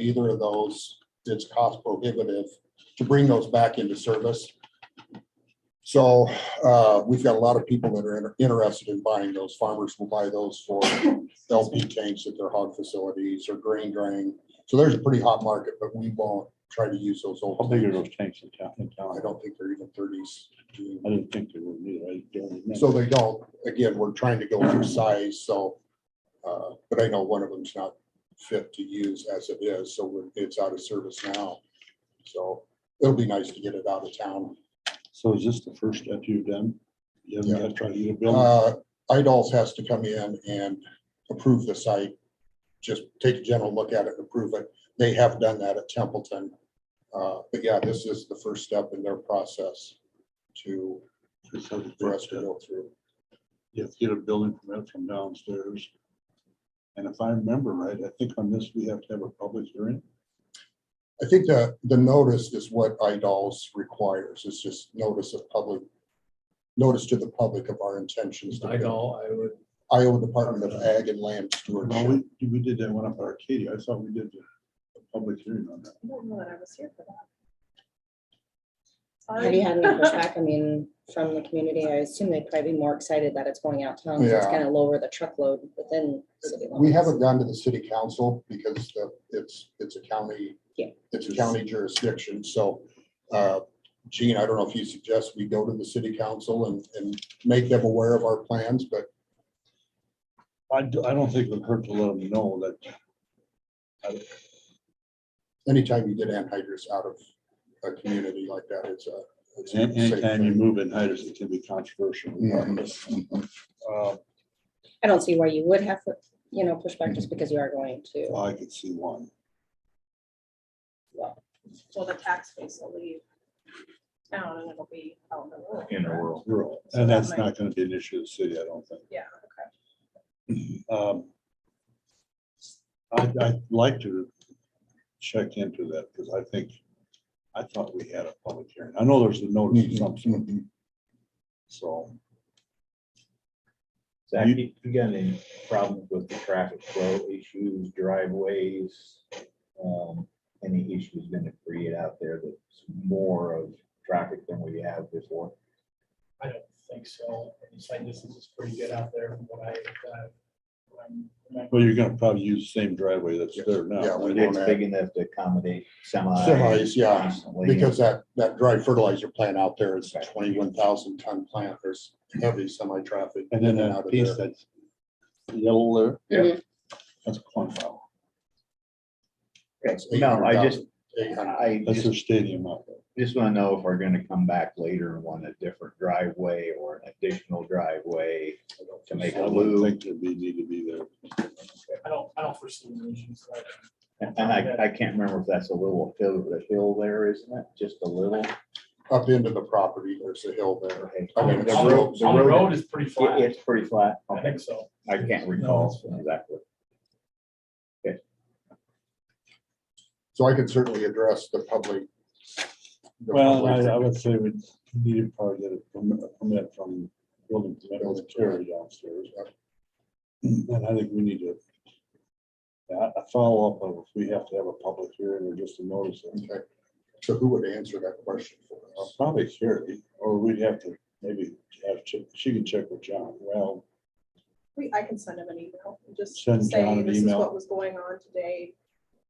either of those, it's cost prohibitive to bring those back into service. So uh, we've got a lot of people that are inter- interested in buying those. Farmers will buy those for LP tanks at their hog facilities or grain drain. So there's a pretty hot market, but we won't try to use those old. How big are tanks. those tanks in town? in I town? don't think they're even thirties. I didn't think they were either. I don't remember. So they don't, again, we're trying to go through size, so, uh, but I know one of them's not fit to use as it is, so we're- it's out of service now. So it'll be nice to get it out of town. So is this the first step you've done? You haven't got to try to get a building? Uh, Idols has to come in and approve the site. Just take a general look at it and approve it. They have done that at Templeton. Uh, but yeah, this is the first step in their process to, It's not the for us first to step. go through. You have to get a building permit from downstairs. And if I remember right, I think on this, we have to have a public hearing. I think the, the notice is what IDOLS requires. It's just notice of public, notice to the public of our intentions. to I build. know, I would, Iowa Department of Ag and Land Well, Stewardship. we, we did that one up at Arcadia. I thought we did a public hearing on that. I don't know that I was here for that. Have you had any pushback, I mean, from the community? I assume they'd probably be more excited that it's going out town. so It's Yeah. gonna lower the truckload within city limits. We haven't gone to the city council because the, it's, it's a county. Yeah. It's a county jurisdiction, so, uh, Gene, I don't know if you suggest we go to the city council and, and make them aware of our plans, but I, do- I don't think it would hurt to let them know that anytime you get anhydrous out of a community like that, it's a. it's a An- safe Anytime you thing. move in height, it can be controversial. Uh, I don't see why you would have, you know, pushback just because you are going to. well, I could see one. Well, the tax base will leave town and it'll be out in the rural. in the correct? world. rural, And that's not gonna be an issue of the city, I don't think. Yeah, okay. Um, I'd, I'd like to check into that, because I think, I thought we had a public hearing. I know there's a notice of some sort, Mhm. so. Zach, You- you you got any problems with the traffic flow issues, driveways? um, Any issues gonna create out there that's more of traffic than we have before? I don't think so. The Site distance is pretty good out there from what I, uh, what I'm Well, remembering. you're gonna probably use the same driveway that's there Yeah, now. we right? won't It's have- big enough to accommodate semis. Semis, yeah, constantly. Because that, that dry fertilizer plant out there is a Right. twenty-one thousand ton plant, there's heavy semi-traffic. And then in out that of piece there. that's yellow there. Yeah. That's cornfield. That's No, I just, 800,000. I That's just, their stadium out there. just wanna know if we're gonna come back later and want a different driveway or an additional driveway to make I a wouldn't loop. think there'd be, need to be there. I don't, I don't foresee any issues. so I don't- And and I, I can't remember if that's a little hill, the hill there, isn't it? Just a little. Up into the property, there's a hill there. Okay. I On mean, the the road- the road- road is pretty It- flat. It's pretty flat. I Okay. think so. I can't recall exactly. So I could certainly address the public. the Well, I, public I would say we need to probably get a permit- a permit from building permit to carry downstairs. And I think we need to. yeah, A follow-up of if we have to have a public hearing or just a notice. of- Okay. So who would answer that question for uh, us? Probably Carrie, or we'd have to maybe have, Chi- she can check with John. Well, We, I can send him an email and just Send John say an this is email. what was going on today.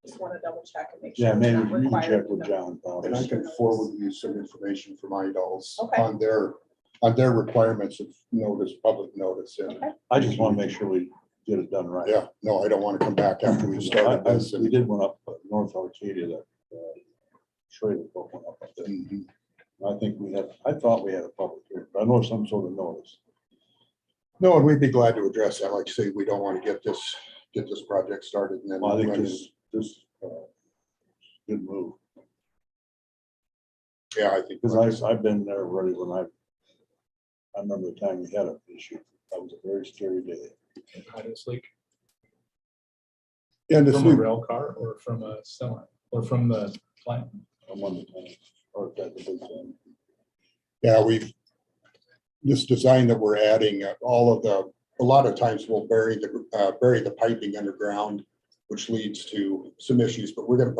Just want to double check and make sure. yeah, it's maybe not you can required, check you with know. John. probably. And I can forward you some information from IDOLS Okay. on their, on their requirements of notice, public notice. And Okay. I just want to make sure we get it done right. yeah, no, I don't want to come back after we started I- I- this. We and- did one up at North Arcadia that uh, trailer broke one up up there. Mhm. I think we had, I thought we had a public hearing, but I know some sort of notice. No, and we'd be glad to address that. Like I say, we don't want to get this, get this project started and then. Well, I think run- this, this, uh, good move, Yeah, I think. because I, I've been there already when I, I remember the time we had an issue. That was a very scary day. Honestly, And the from a three, rail car or from a semi, or from the plant. I'm on the time, or that was the time. yeah, we've, this design that we're adding, uh, all of the, a lot of times we'll bury the, uh, bury the piping underground which leads to some issues, but we're gonna put